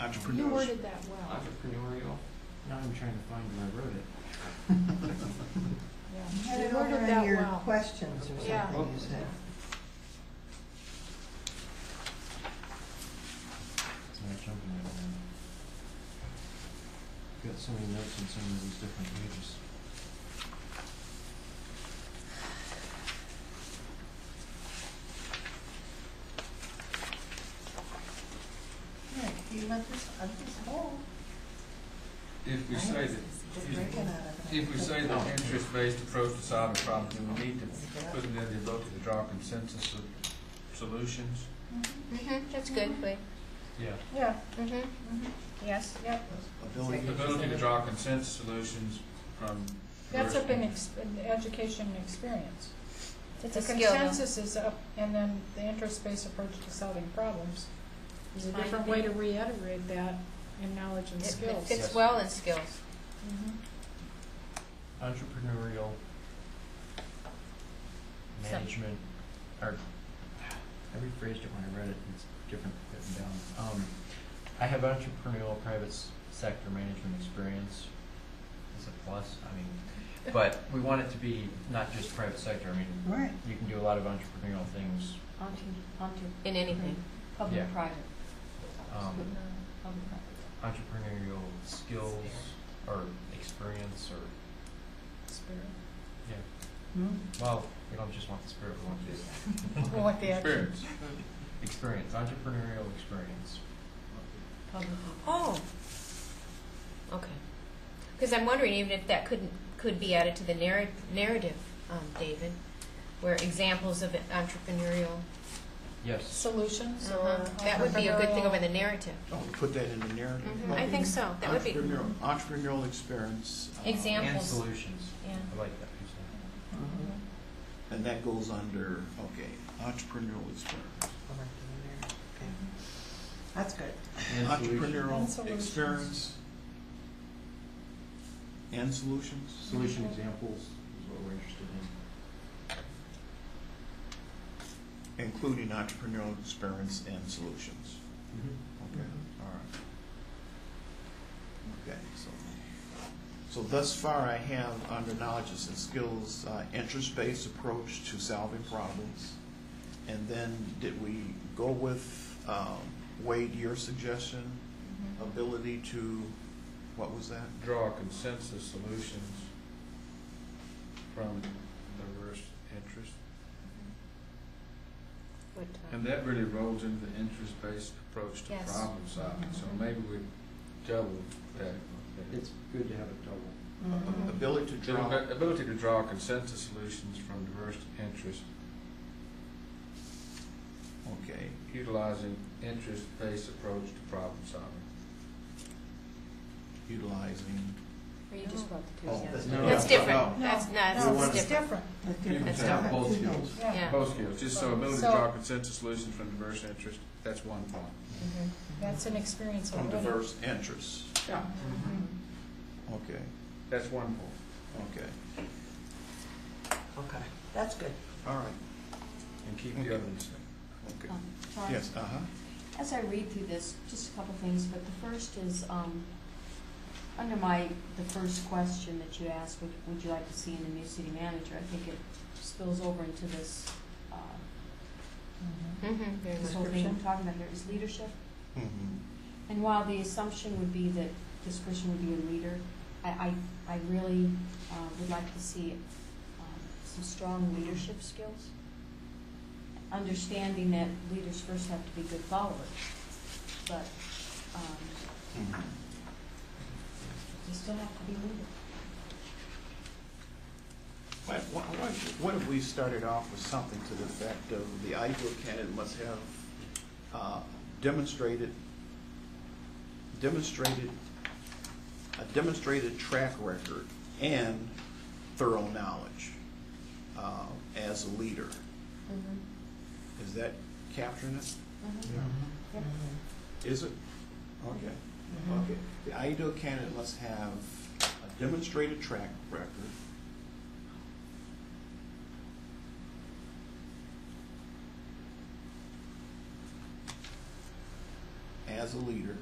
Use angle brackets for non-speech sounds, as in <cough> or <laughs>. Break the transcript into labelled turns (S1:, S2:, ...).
S1: entrepreneurs.
S2: You worded that well,
S3: entrepreneurial.
S4: Now I'm trying to find where I wrote it.
S2: yeah.
S5: Had
S2: You
S5: it over
S2: worded
S5: in
S2: that
S5: your
S2: well.
S5: questions or
S2: Yeah.
S5: something, you said.
S4: It's not jumping at all. Got so many notes on so many of these different pages.
S5: Yeah, you want this, uh, this whole,
S3: If we
S5: I
S3: say
S5: was-
S3: that,
S5: just
S3: excuse me,
S5: breaking out of it.
S3: if we say that interest-based approach to solving problems, then we need to put it in the ability to draw consensus of solutions.
S6: Mm-hmm, that's good, but,
S3: Yeah.
S5: Yeah.
S6: mm-hmm,
S5: mhm.
S6: yes, yep.
S1: Ability.
S3: The ability to draw consensus solutions from.
S2: That's up in
S3: diversity.
S2: ex- in education and experience.
S6: It's
S2: The
S6: a skill, though.
S2: consensus is up, and then the interest-based approach to solving problems is a
S6: Fine.
S2: different way to reiterate that in knowledge and
S6: It- It
S2: skills.
S6: fits well in skills.
S2: Mhm.
S4: Entrepreneurial
S6: Some-
S4: management, or I rephrased it when I read it, it's different written down. Um, I have entrepreneurial private s- sector management experience as a plus, I
S6: <laughs>
S4: mean, but we want it to be not just private sector, I mean,
S5: Right.
S4: you can do a lot of entrepreneurial things,
S7: Onto, onto
S6: In anything.
S4: Yeah.
S7: public, private.
S4: um,
S2: Mm-hmm.
S7: Public, private.
S4: entrepreneurial skills or experience or,
S2: Spirit.
S3: <laughs>
S5: Hmm.
S4: well, we don't just want the spirit, we want
S2: Well, like the action.
S3: Experience.
S4: the experience, entrepreneurial experience.
S7: public.
S6: Oh. Okay. Because I'm wondering even if that couldn't, could be added to the narr- narrative, um, David, where examples of entrepreneurial,
S4: Yes.
S2: Solutions or.
S6: Uh-huh. that would be a good thing over
S2: entrepreneurial-
S6: the narrative.
S1: Don't put that in the narrative.
S6: Mhm, I think so, that would be,
S1: Entrepreneurial, entrepreneurial experience. uh,
S6: Exam-
S4: And
S6: Examples.
S4: solutions.
S6: yeah.
S4: I like that. you
S5: Mhm.
S1: And that goes under, okay, entrepreneurial experience.
S5: Over in there. Okay. That's good.
S4: said. And solution-
S2: And
S1: Entrepreneurial
S2: solutions.
S1: experience. And solutions.
S4: Solution examples is what we're interested in.
S1: Including entrepreneurial experience and solutions. Okay, all right. Okay, so, so thus far I have under knowledges and skills, uh, interest-based approach to solving problems. And then did we go with, um, Wade, your suggestion,
S2: Mm-hmm.
S3: Um,
S1: ability to, what was that?
S3: Draw consensus solutions from diverse interests.
S6: Would, uh,
S3: And that really rolls into the interest-based approach to
S6: Yes.
S3: problem solving, so maybe we double that.
S4: It's good to have it double.
S6: Mm-hmm.
S5: Mhm.
S1: Ability to
S3: The
S1: draw.
S3: abi- Ability to draw consensus solutions from diverse interests,
S1: Okay,
S3: utilizing interest-based approach to problem solving.
S1: utilizing.
S7: Or you just brought the two
S1: Oh,
S7: together.
S1: that's
S3: No,
S6: That's
S3: no,
S6: different,
S1: no.
S6: that's,
S2: No,
S6: no,
S2: no,
S6: that's
S2: it's
S6: different,
S2: different,
S5: That's
S3: You
S5: different.
S3: can
S1: That's
S3: have
S1: different.
S3: both
S5: Two
S3: skills.
S5: goals.
S2: yeah.
S3: Both skills, just so ability to
S2: So-
S3: draw consensus solutions from diverse interests, that's one point.
S6: Mhm.
S2: That's an experience
S1: From
S2: already.
S1: diverse interests.
S3: Yeah.
S1: Okay,
S3: That's one point.
S1: okay,
S5: Okay, that's good.
S1: all right,
S3: And keep
S1: Okay.
S3: the others.
S1: okay.
S7: Um, sorry.
S1: Yes, uh-huh.
S7: As I read through this, just a couple things, but the first is, um, under my, the first question that you asked, would, would you like to see in the new city manager? I think it spills over into this, uh,
S6: mm-hmm, very
S7: this
S6: much.
S7: whole thing I'm talking about here, is leadership.
S1: Mhm.
S7: And while the assumption would be that this person would be a leader, I, I, I really uh, would like to see um, some strong leadership skills. Understanding that leaders first have to be good followers, but um,
S1: Mhm.
S7: they still have to be leaders.
S1: What, what, what- what if we started off with something to the effect of the ideal candidate must have uh, demonstrated, demonstrated, a demonstrated track record and thorough knowledge uh, as a leader? Is that capturing it?
S7: Yep.
S1: Is it? Okay. Okay. The ideal candidate must have a demonstrated track record. As a leader.